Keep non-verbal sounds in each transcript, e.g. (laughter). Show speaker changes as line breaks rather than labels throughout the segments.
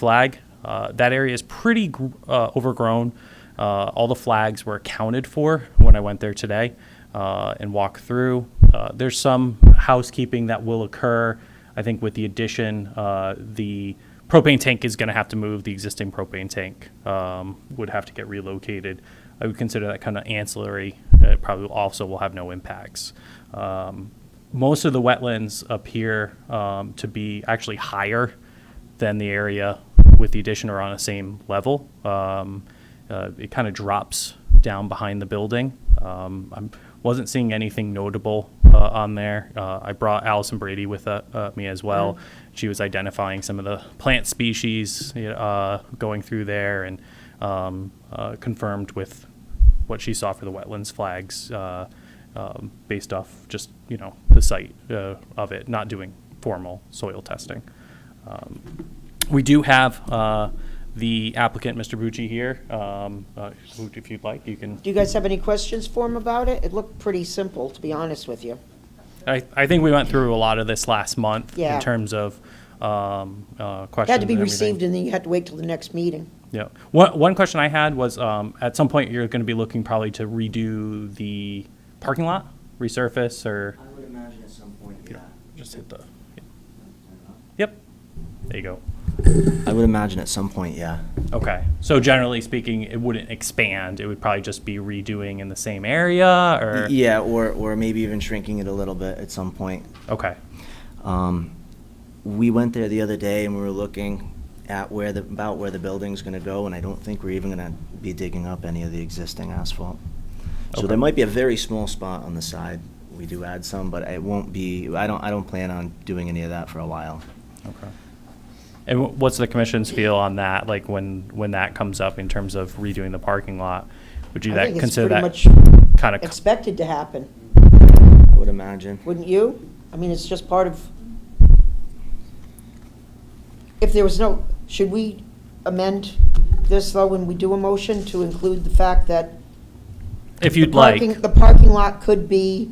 flag. Uh, that area is pretty gr- uh, overgrown. Uh, all the flags were accounted for when I went there today uh, and walked through. Uh, there's some housekeeping that will occur. I think with the addition, uh, the propane tank is going to have to move. The existing propane tank um, would have to get relocated. I would consider that kind of ancillary. Uh, It probably also will have no impacts. Um, most of the wetlands appear um, to be actually higher than the area with the addition are on the same level. Um, uh, it kind of drops down behind the building. Um, I wasn't seeing anything notable uh, on there. Uh, I brought Allison Brady with uh, uh, me as well. She was identifying some of the plant species you know, uh, going through there and um, uh, confirmed with what she saw for the wetlands flags uh, um, based off just you know the site uh, of it, not doing formal soil testing. We do have uh, the applicant, Mr. Bucci, here. Um, uh, who- If you'd like, you can,
Do you guys have any questions for him about it? It looked pretty simple, to be honest with you.
I I think we went through a lot of this last month in
Yeah.
terms of um, uh,
It
questions.
Had to be
and everything.
received and then you had to wait till the next meeting.
Yeah. One one question I had was, um, at some point, you're going to be looking probably to redo the parking lot, resurface, or
I would imagine at some point, yeah.
just hit the, yep, there you go.
I would imagine at some point, yeah.
Okay, so generally speaking, it wouldn't expand, it would probably just be redoing in the same area, or?
Yeah, or, or maybe even shrinking it a little bit at some point.
Okay.
Um, we went there the other day and we were looking at where the, about where the building's gonna go, and I don't think we're even gonna be digging up any of the existing asphalt. So
Okay.
there might be a very small spot on the side. We do add some, but it won't be, I don't, I don't plan on doing any of that for a while.
Okay. And wh- what's the commission's feel on that, like when, when that comes up in terms of redoing the parking lot? Would you
I
that,
think it's
consider that
pretty much
kind of,
Expected to happen,
I would imagine.
wouldn't you? I mean, it's just part of, if there was no, should we amend this though when we do a motion to include the fact that
if you'd like?
parking, the parking lot could be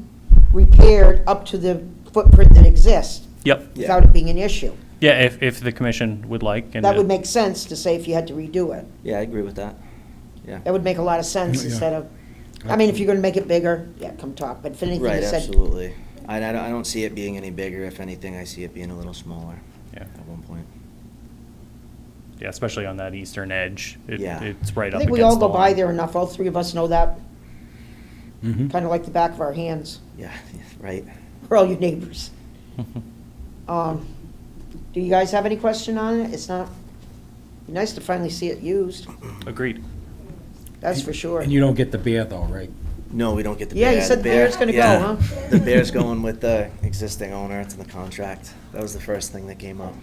repaired up to the footprint that exists
Yep,
Yeah.
without it being an issue?
yeah, if, if the commission would like. and
That would
it-
make sense to say if you had to redo it.
Yeah, I agree with that. Yeah.
That would make a lot of sense
Yeah.
instead of, I mean, if you're gonna make it bigger, yeah, come talk, but if anything
Right,
is said.
absolutely. I, I don't- I don't see it being any bigger. If anything, I see it being a little smaller
Yeah,
at one point.
yeah, especially on that eastern edge. It-
Yeah.
It's right
I
up
think we all
against the
go by
line.
there enough, all three of us know that,
Mhm.
kinda like the back of our hands.
Yeah, (laughs) right.
We're all your neighbors. Um, do you guys have any question on it? It's not, be nice to finally see it used,
(laughs) Agreed.
that's for sure.
And you don't get the beer though, right?
No, we don't get the
Yeah,
bear.
you said the bear's gonna go,
yeah.
huh?
The bear's going with the existing owner. It's in the contract. That was the first thing that came up.
(laughs)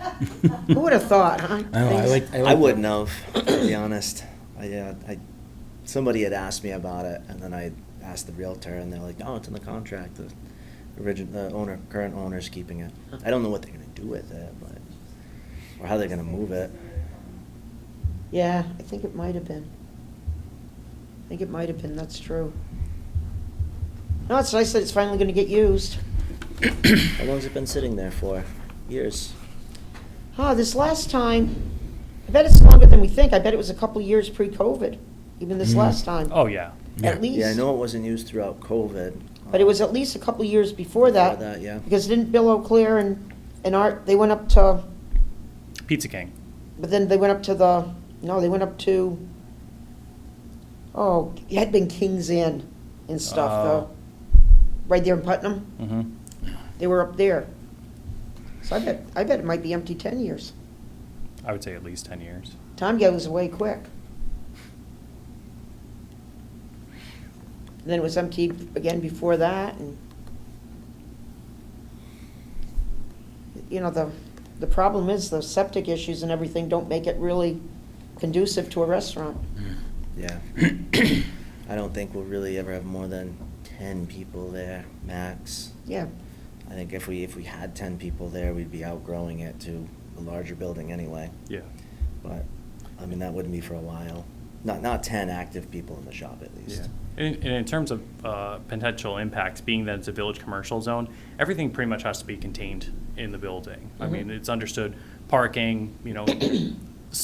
Who would've thought, huh?
I know, I like, I like.
I wouldn't have, to be honest. I, yeah, I, somebody had asked me about it, and then I asked the realtor, and they're like, "No, it's in the contract. The origin, the owner, current owner's keeping it. I don't know what they're gonna do with it, but or how they're gonna move it."
Yeah, I think it might have been. I think it might have been, that's true. No, it's nice that it's finally gonna get used.
How long's it been sitting there for? Years.
Oh, this last time, I bet it's longer than we think. I bet it was a couple years pre-COVID, even this
Mhm.
last time,
Oh, yeah.
Yeah.
at least.
Yeah, I know it wasn't used throughout COVID.
But it was at least a couple years before that.
Before that, yeah.
Because didn't Bill O'Clair and, and Art, they went up to,
Pizza King.
but then they went up to the, no, they went up to, oh, it had been King's Inn and stuff,
Oh.
though. Right there in Putnam,
Mhm.
they were up there. So I bet, I bet it might be empty ten years.
I would say at least 10 years.
Time goes away quick. And then it was empty again before that, and, you know, the, the problem is the septic issues and everything don't make it really conducive to a restaurant.
Mm.
(clears throat)
Yeah. I don't think we'll really ever have more than ten people there, max.
Yeah,
I think if we, if we had ten people there, we'd be outgrowing it to a larger building anyway.
Yeah.
But, I mean, that wouldn't be for a while. Not, not ten active people in the shop at
Yeah,
least.
And and in terms of uh, potential impacts, being that it's a village commercial zone, everything
Mm-hmm.
pretty much has to be contained in the building. I mean, it's understood, parking, you know,